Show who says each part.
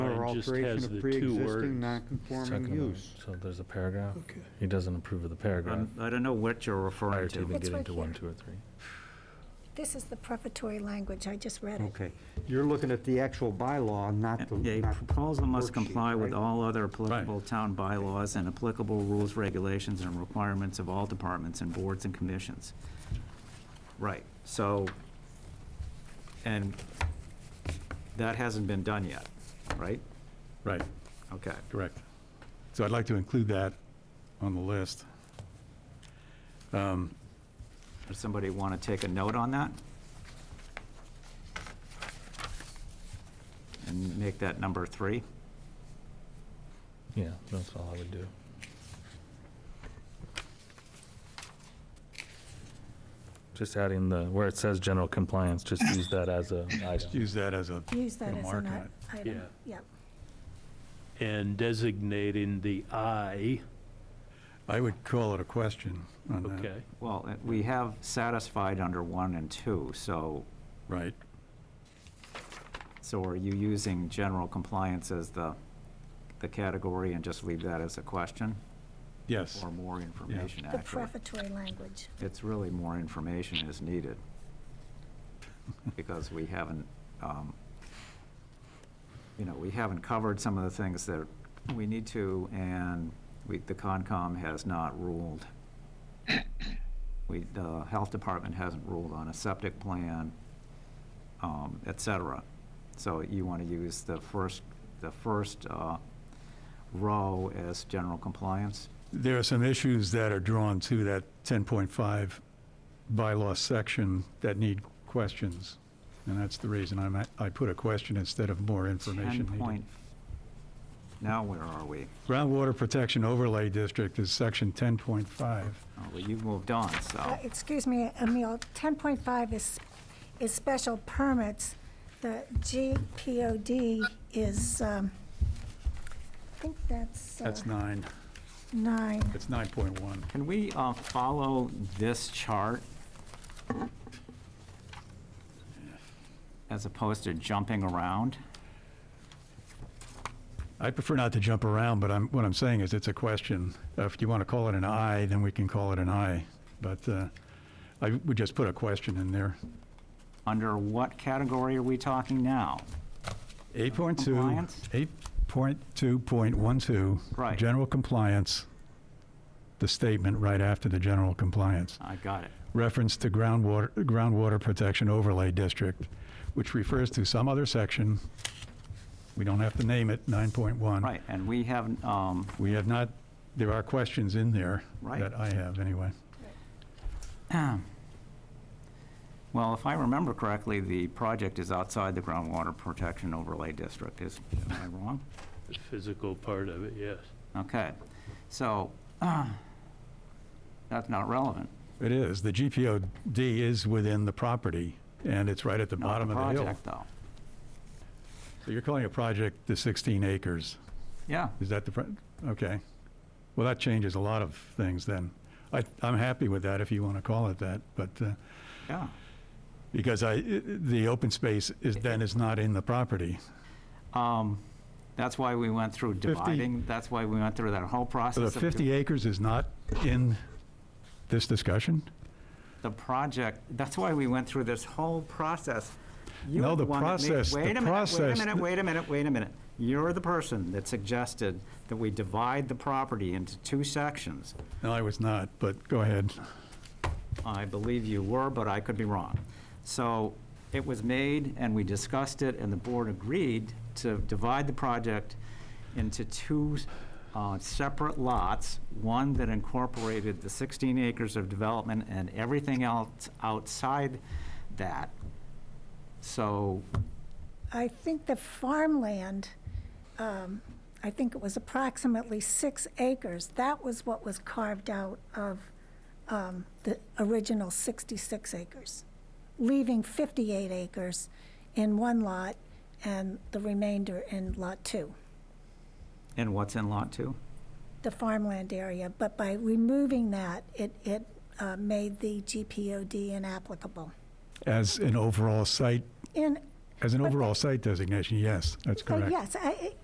Speaker 1: just
Speaker 2: alteration
Speaker 1: has
Speaker 2: of
Speaker 1: the two words.
Speaker 2: pre-existing non-conforming
Speaker 3: Second line.
Speaker 2: use.
Speaker 3: So there's a paragraph. He doesn't approve of the paragraph
Speaker 4: I'm- I don't know what you're
Speaker 3: prior
Speaker 4: referring
Speaker 3: to
Speaker 4: to.
Speaker 3: even
Speaker 5: It's
Speaker 3: getting
Speaker 5: right
Speaker 3: to one,
Speaker 5: here.
Speaker 3: two, or three.
Speaker 5: This is the prefatory language, I just read it.
Speaker 2: Okay, you're looking at the actual bylaw, not the,
Speaker 4: A
Speaker 2: not the
Speaker 4: proposal must
Speaker 2: worksheet,
Speaker 4: comply with
Speaker 2: right?
Speaker 4: all other applicable town bylaws and applicable rules, regulations, and requirements of all departments and boards and commissions. Right, so, and that hasn't been done yet, right?
Speaker 1: Right,
Speaker 4: Okay.
Speaker 1: correct.
Speaker 6: So I'd like to include that on the list. Um,
Speaker 4: Does somebody want to take a note on that? And make that number three?
Speaker 3: Yeah, that's all I would do. Just adding the, where it says general compliance, just use that as a
Speaker 6: Just
Speaker 3: item.
Speaker 6: use that as a,
Speaker 5: Use that
Speaker 6: Yeah,
Speaker 5: as
Speaker 6: mark
Speaker 5: an i-
Speaker 6: it.
Speaker 5: item.
Speaker 1: Yeah.
Speaker 5: Yeah.
Speaker 1: And designating the I,
Speaker 6: I would call it a question on that.
Speaker 1: okay,
Speaker 4: Well, uh, we have satisfied under one and two, so,
Speaker 6: Right.
Speaker 4: so are you using general compliance as the, the category and just leave that as a question?
Speaker 6: Yes.
Speaker 4: Or more information,
Speaker 5: The
Speaker 4: actually?
Speaker 5: prefatory language.
Speaker 4: It's really more information is needed, because we haven't, um, you know, we haven't covered some of the things that we need to, and we, the Concom has not ruled. We, the Health Department hasn't ruled on a septic plan, um, et cetera. So you want to use the first, the first uh, row as general compliance?
Speaker 6: There are some issues that are drawn to that 10.5 bylaw section that need questions. And that's the reason I'm, at- I put a question instead of more information
Speaker 4: Ten
Speaker 6: needed.
Speaker 4: point, now where are we?
Speaker 6: Groundwater Protection Overlay District is section 10.5.
Speaker 4: Oh, Well, you've moved on,
Speaker 5: Uh,
Speaker 4: so,
Speaker 5: Excuse me, Emile, 10.5 is, is special permits. The GPOD is, um, I think that's uh,
Speaker 6: That's nine.
Speaker 5: nine.
Speaker 6: It's 9.1.
Speaker 4: can we uh, follow this chart? As opposed to jumping around?
Speaker 6: I prefer not to jump around, but I'm, what I'm saying is it's a question. If you want to call it an I, then we can call it an I. But uh, I would just put a question in there.
Speaker 4: Under what category are we talking now?
Speaker 6: 8.2,
Speaker 4: Compliance?
Speaker 6: 8.2.12.
Speaker 4: Right.
Speaker 6: General compliance, the statement right after the general compliance.
Speaker 4: I got it.
Speaker 6: Reference to groundwater, groundwater protection overlay district, which refers to some other section. We don't have to name it, 9.1.
Speaker 4: Right, and we haven't, um,
Speaker 6: We have not, there are questions in there.
Speaker 4: Right.
Speaker 6: That I have, anyway.
Speaker 4: well, if I remember correctly, the project is outside the groundwater protection overlay district, is, am I wrong?
Speaker 1: the physical part of it, yes.
Speaker 4: Okay, so, uh, that's not relevant.
Speaker 6: It is. The GPOD is within the property, and it's right at the
Speaker 4: Not
Speaker 6: bottom of the hill.
Speaker 4: Project, though.
Speaker 6: So you're calling a project the 16 acres.
Speaker 4: Yeah,
Speaker 6: Is that the, pro- okay. Well, that changes a lot of things then. I, I'm happy with that if you want to call it that, but, uh,
Speaker 4: yeah.
Speaker 6: because I, i- the open space is, then is not in the property.
Speaker 4: Um, That's why we went through dividing, that's why we went through that whole
Speaker 6: So the
Speaker 4: process. of
Speaker 6: 50 acres is not in this discussion?
Speaker 4: The project, that's why we went through this whole process. You
Speaker 6: No,
Speaker 4: were
Speaker 6: the
Speaker 4: one that made-
Speaker 6: process- the
Speaker 4: Wait a minute, wait a
Speaker 6: process-
Speaker 4: minute, wait a minute, wait a minute. You're the person that suggested that we divide the property into two sections.
Speaker 6: No, I was not, but go ahead.
Speaker 4: I believe you were, but I could be wrong. So it was made, and we discussed it, and the board agreed to divide the project into two uh, separate lots, one that incorporated the 16 acres of development and everything else outside that. So,
Speaker 5: I think the farmland, um, I think it was approximately six acres. That was what was carved out of um, the original 66 acres, leaving 58 acres in one lot and the remainder in Lot 2,
Speaker 4: and what's in Lot 2?
Speaker 5: the farmland area. But by removing that, it it uh, made the GPOD inapplicable.
Speaker 6: As an overall site,
Speaker 5: In
Speaker 6: as an
Speaker 5: But-
Speaker 6: overall site designation, yes, that's
Speaker 5: Uh,
Speaker 6: correct.
Speaker 5: Yes, I- I-